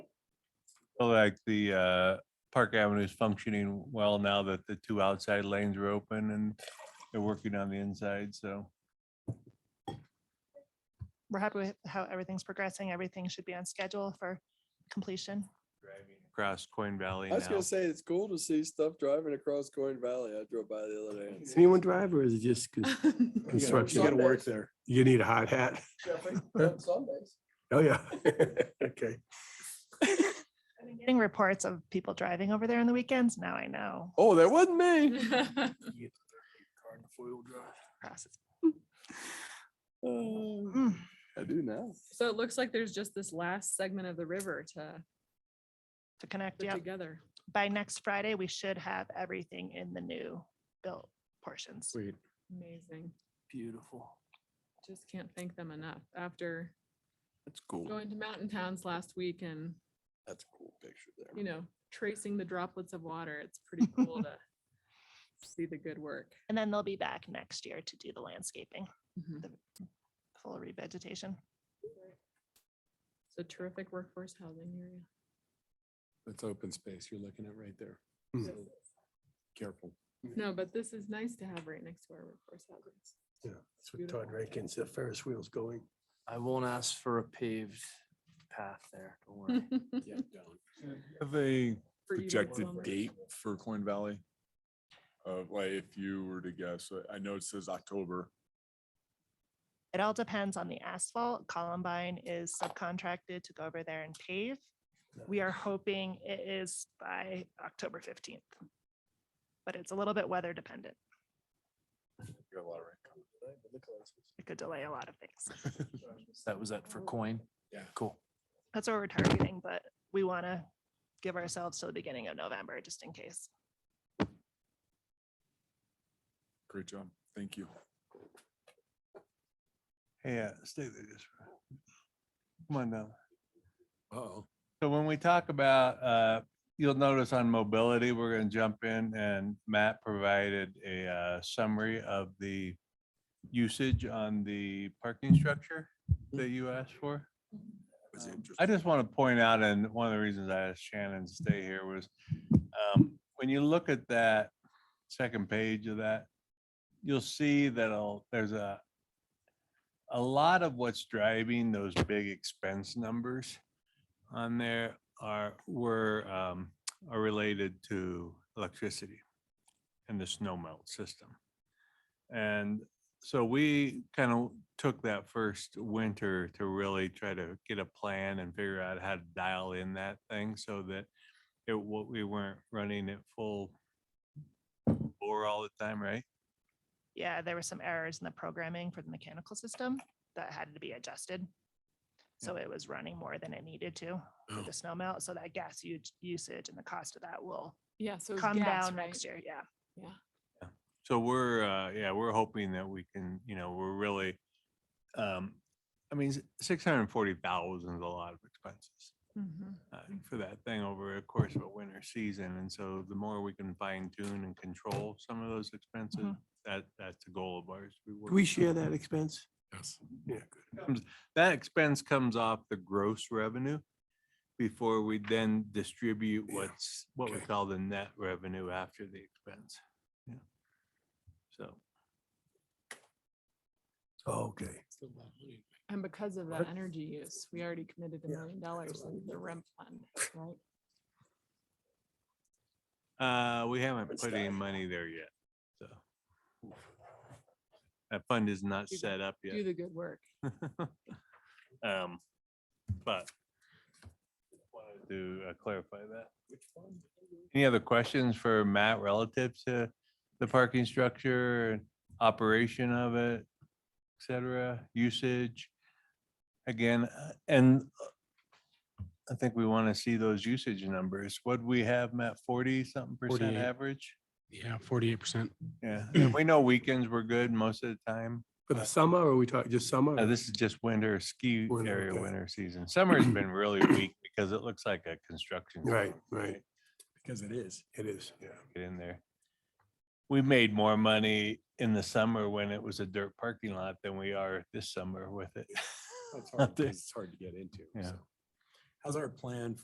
feel like the uh, Park Avenue is functioning well now that the two outside lanes are open and they're working on the inside, so. We're happy with how everything's progressing. Everything should be on schedule for completion. Across Coin Valley I was now. gonna say, it's cool to see stuff driving across Coin Valley. I drove by the other day. and- Does anyone drive or is it just cons- You construction? gotta work there. You need a hot hat. Sundays. Oh, yeah. Okay. I've been Getting reports of people driving over there on the weekends. Now I know. Oh, that wasn't me. Cross is- Uh, Mm. I do now. So it looks like there's just this last segment of the river to To connect, put yeah. together. By next Friday, we should have everything in the new built portions. Sweet. Amazing. Beautiful. Just can't thank them enough after That's cool. going to mountain towns last week and, That's a cool picture you there. know, tracing the droplets of water. It's pretty cool to see the good work. And then they'll be back next year to do the landscaping, Mhm. full revegetation. It's a terrific workforce housing area. That's open space you're looking at right there. Hmm. So Careful. No, but this is nice to have right next to our workforce housing. Yeah, that's what Todd Rankin said, Ferris wheels going. I won't ask for a paved path there, don't worry. Yeah, down. Have a For you to projected walk. date for Coin Valley? Uh, like if you were to guess, I- I know it says October. It all depends on the asphalt. Columbine is subcontracted to go over there and pave. We are hoping it is by October fifteenth. But it's a little bit weather dependent. It could delay a lot of things. That was that for coin? Yeah. Cool. That's what we're targeting, but we want to give ourselves to the beginning of November, just in case. Great job. Thank you. Yeah, stay there just. for a- Come on now. Uh-oh. So when we talk about, uh, you'll notice on mobility, we're gonna jump in and Matt provided a uh, summary of the usage on the parking structure that you asked for. It's Um, interesting. I just want to point out, and one of the reasons I asked Shannon to stay here was, um, when you look at that second page of that, you'll see that I'll- there's a, a lot of what's driving those big expense numbers on there are, were, um, are related to electricity and the snow melt system. And so we kind of took that first winter to really try to get a plan and figure out how to dial in that thing so that it, what we weren't running at full bore all the time, right? Yeah, there were some errors in the programming for the mechanical system that had to be adjusted. So it was running more than it needed to Oh. with the snow melt. So that gas u- usage and the cost of that will Yeah, so. come down next year. Yeah. Yeah. So we're, uh, yeah, we're hoping that we can, you know, we're really, um, I mean, six hundred and forty thousand is a lot of expenses. uh, Mm. for that thing over a course of a winter season. And so the more we can fine tune and control some of those expenses, that, that's a goal of ours. Do Mm-hmm. we share that expense? Yes. Yeah, good. That expense comes off the gross revenue before we then distribute Yeah, what's, what we okay. call the net revenue after the expense. Yeah. So. Oh, Okay. And because of the What? energy use, we already committed a Yeah. million dollars in the REM fund, right? Uh, we haven't It's put any not- money there yet, so. That fund is not Do the- set up yet. Do the good work. Um, but wanted to uh, clarify that. Any other questions for Matt relative to the parking structure, and operation of it, et cetera, usage? Again, uh, and uh, I think we want to see those usage numbers. What we have, Matt, forty something percent 48. average? Yeah, forty-eight percent. Yeah, and we know weekends were good most of the time. For the summer or we talk just summer? Uh, this is just winter ski Hmm. Winter, area, okay. winter season. Summer's been really weak because it looks like a construction. Right, zone, right. Because it is. It is, yeah. Get in there. We made more money in the summer when it was a dirt parking lot than we are this summer with it. That's Out hard, 'cause there. it's hard to get into. Yeah. so. How's our plan